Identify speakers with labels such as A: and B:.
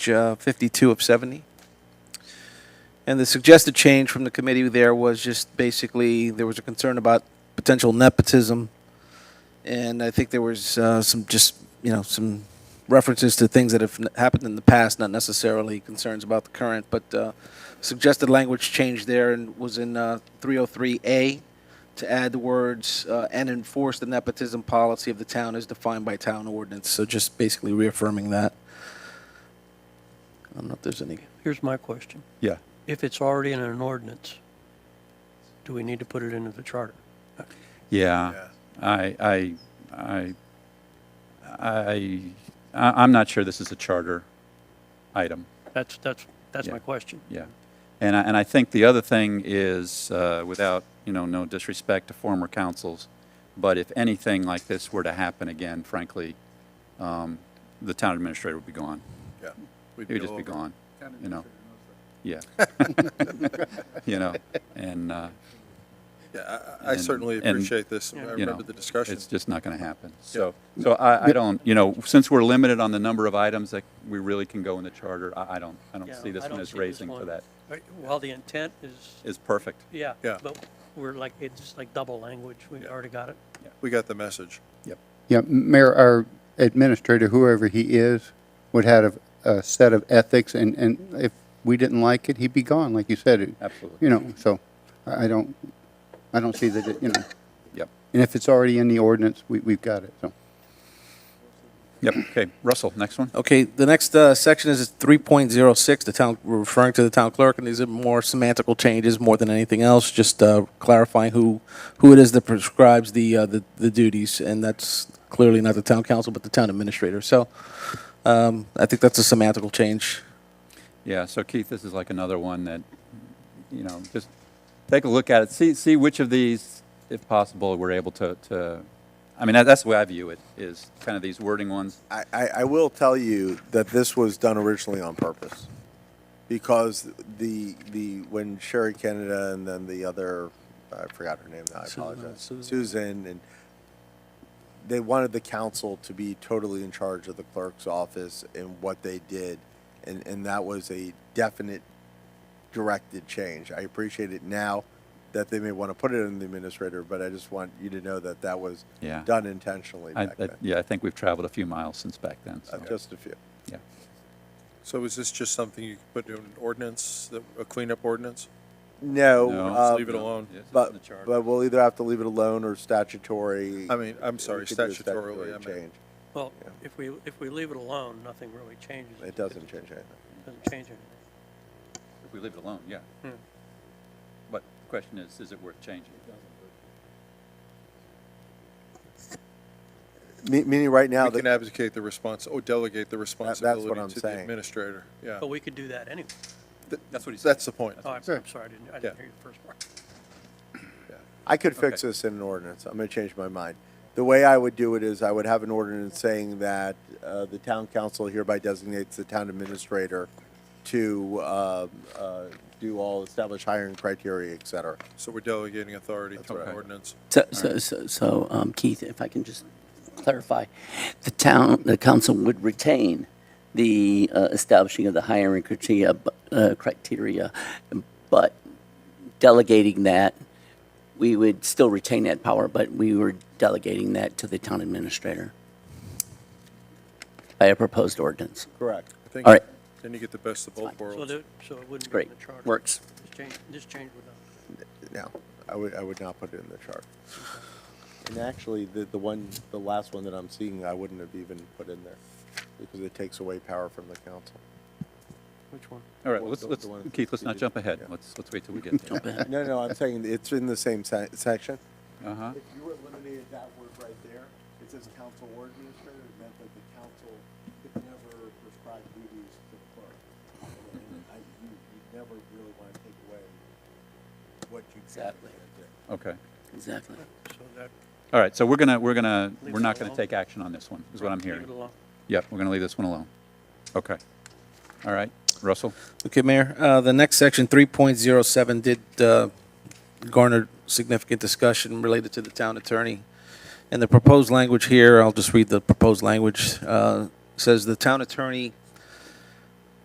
A: uh, 52 of 70. And the suggested change from the committee there was just basically, there was a concern about potential nepotism. And I think there was uh, some just, you know, some references to things that have n- happened in the past, not necessarily concerns about the current, but uh, suggested language change there and was in uh, 303A to add the words uh, "and enforce the nepotism policy of the town as defined by town ordinance." So just basically reaffirming that. I don't know if there's any.
B: Here's my question.
C: Yeah.
B: If it's already in an ordinance, do we need to put it into the charter?
C: Yeah. I, I, I, I, I- I'm not sure this is a charter item.
B: That's, that's, that's
C: Yeah.
B: my question.
C: Yeah. And I, and I think the other thing is, uh, without, you know, no disrespect to former councils, but if anything like this were to happen again, frankly, um, the town administrator would be gone.
D: Yeah. We'd
C: He would just be
D: over.
C: gone, you know? Yeah. You know, and, uh,
D: Yeah, I- I I
C: And-
D: certainly
C: and,
D: appreciate this. I
B: you
C: you know,
D: remember the discussion.
C: It's just not going to happen. So, so I, I don't, you know, since we're limited on the number of items that we really can go in the charter, I, I don't, I don't
B: Yeah,
C: see this
B: I
C: one
B: don't
C: as
B: see this
C: raising for
B: one.
C: that.
B: Right, While the intent is,
C: Is perfect.
B: yeah.
D: Yeah.
B: But we're like, it's just like double language. We've
D: Yeah.
B: already got it.
D: We got the message.
C: Yep.
E: Yeah, Mayor, our administrator, whoever he is, would have a, a set of ethics, and, and if we didn't like it, he'd be gone, like you said. It-
C: Absolutely.
E: You know, so I I don't, I don't see that, it you know,
C: Yep.
E: and if it's already in the ordinance, we, we've got it, so.
C: Yep. Okay. Russell, next one.
A: Okay, the next uh, section is 3.06. The town we're referring to the town clerk, and these are more semantical changes more than anything else, just uh, clarifying who who it is that prescribes the uh, the, the duties, and that's clearly not the town council, but the town administrator. So um, I think that's a semantical change.
C: Yeah. So Keith, this is like another one that, you know, just take a look at it. See, see which of these, if possible, we're able to, to, I mean, that- that's the way I view it, is kind of these wording ones.
F: I, I, I will tell you that this was done originally on purpose because the the when Sherry Canada and then the other I forgot her name now I
A: Susan,
F: apologize
A: Susan.
F: and they wanted the council to be totally in charge of the clerk's office and what they did and and that was a definite directed change I appreciate it now that they may want to put it in the administrator but I just want you to know that that was
C: Yeah.
F: done intentionally
C: I,
F: back
C: I-
F: then
C: yeah, I think we've traveled a few miles since back then.
F: Uh,
C: So,
F: just a few
C: yeah.
D: So is this just something you could put in an ordinance, that- a cleanup ordinance?
F: No,
C: No.
F: um,
D: Just leave it alone.
C: Yes, it's in
F: But
C: the charter.
F: but we'll either have to leave it alone or statutory.
D: I mean, I'm
F: we
D: sorry,
F: could do a
D: statutorily, I
F: statutory
D: mean.
F: change.
B: Well, if we, if we leave it alone, nothing really changes.
F: It doesn't change anything.
B: Doesn't change anything.
C: If we leave it alone, yeah.
B: Hmm.
C: But the question is, is it worth changing?
F: Me- Meaning, right now,
D: We
F: the-
D: can abdicate the respons, or delegate the
F: I'm
D: responsibility to the
F: saying.
D: administrator. Yeah.
B: But we could do that anyway.
C: That's what he said.
D: That's the point.
B: Oh, I'm
E: Sure.
B: I'm sorry, I didn't, I
D: Yeah.
B: didn't hear your first part.
F: I could fix
C: Okay.
F: this in an ordinance. I'm going to change my mind. The way I would do it is I would have an ordinance saying that uh, the town council hereby designates the town administrator to um, uh, do all established hiring criteria, et cetera.
D: So we're delegating authority through an
C: right.
D: ordinance.
G: So, so, so, so um, Keith, if I can just clarify, the town, the council would retain the uh, establishing of the hiring criteria, bu- uh, criteria, but delegating that, we would still retain that power, but we were delegating that to the town administrator by a proposed ordinance.
F: Correct.
D: I think
G: All right.
D: Then you get the best of both
B: So
D: worlds.
B: there, so it wouldn't be in
G: Great.
B: the charter.
G: Works.
B: This change, this change would not.
F: No, I would, I would not put it in the chart. And actually, the, the one, the last one that I'm seeing, I wouldn't have even put in there because it takes away power from the council.
B: Which one?
C: All right,
F: Well,
C: let's,
F: the-
C: let's,
F: the one-
C: Keith, let's not jump ahead.
F: Yeah.
C: Let's, let's wait till we get there.
G: But-
F: No, no, I'm saying it's in the same se- section.
C: Uh-huh.
F: If you eliminated that word right there, it says council or administrator, it meant that the council could never prescribe duties to the clerk. And I, you, you never really want to take away what you.
G: Exactly.
C: Okay.
G: Exactly.
B: So that,
C: All right, so we're gonna, we're gonna,
B: Leave
C: we're
B: it
C: not gonna
B: alone.
C: take action on this one, is what I'm
B: leave it
C: hearing.
B: alone.
C: Yep, we're gonna leave this one alone. Okay. All right, Russell?
A: Okay, Mayor, uh, the next section, 3.07, did uh, garner significant discussion related to the town attorney. And the proposed language here, I'll just read the proposed language, uh, says the town attorney